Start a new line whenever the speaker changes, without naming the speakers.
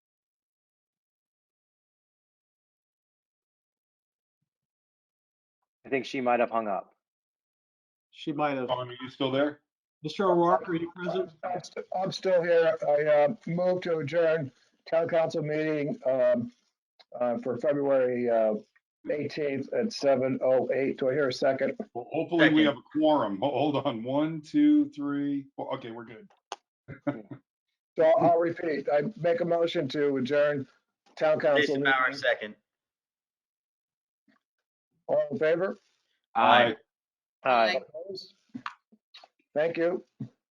think she might have hung up.
She might have.
Vaughn, are you still there?
Mr. O'Rourke, are you present?
I'm st- I'm still here. I uh, move to adjourn town council meeting um, uh, for February uh, 18th at 7:08. Do I hear a second?
Well, hopefully we
Second.
have a quorum. Ho- Hold on, one, two, three, four. Okay, we're good.
So I'll- I'll repeat. I make a motion to adjourn town council.
Jason Bauer,
meeting.
second.
All in favor?
Aye.
Aye.
Aye.
Opposed? Thank you.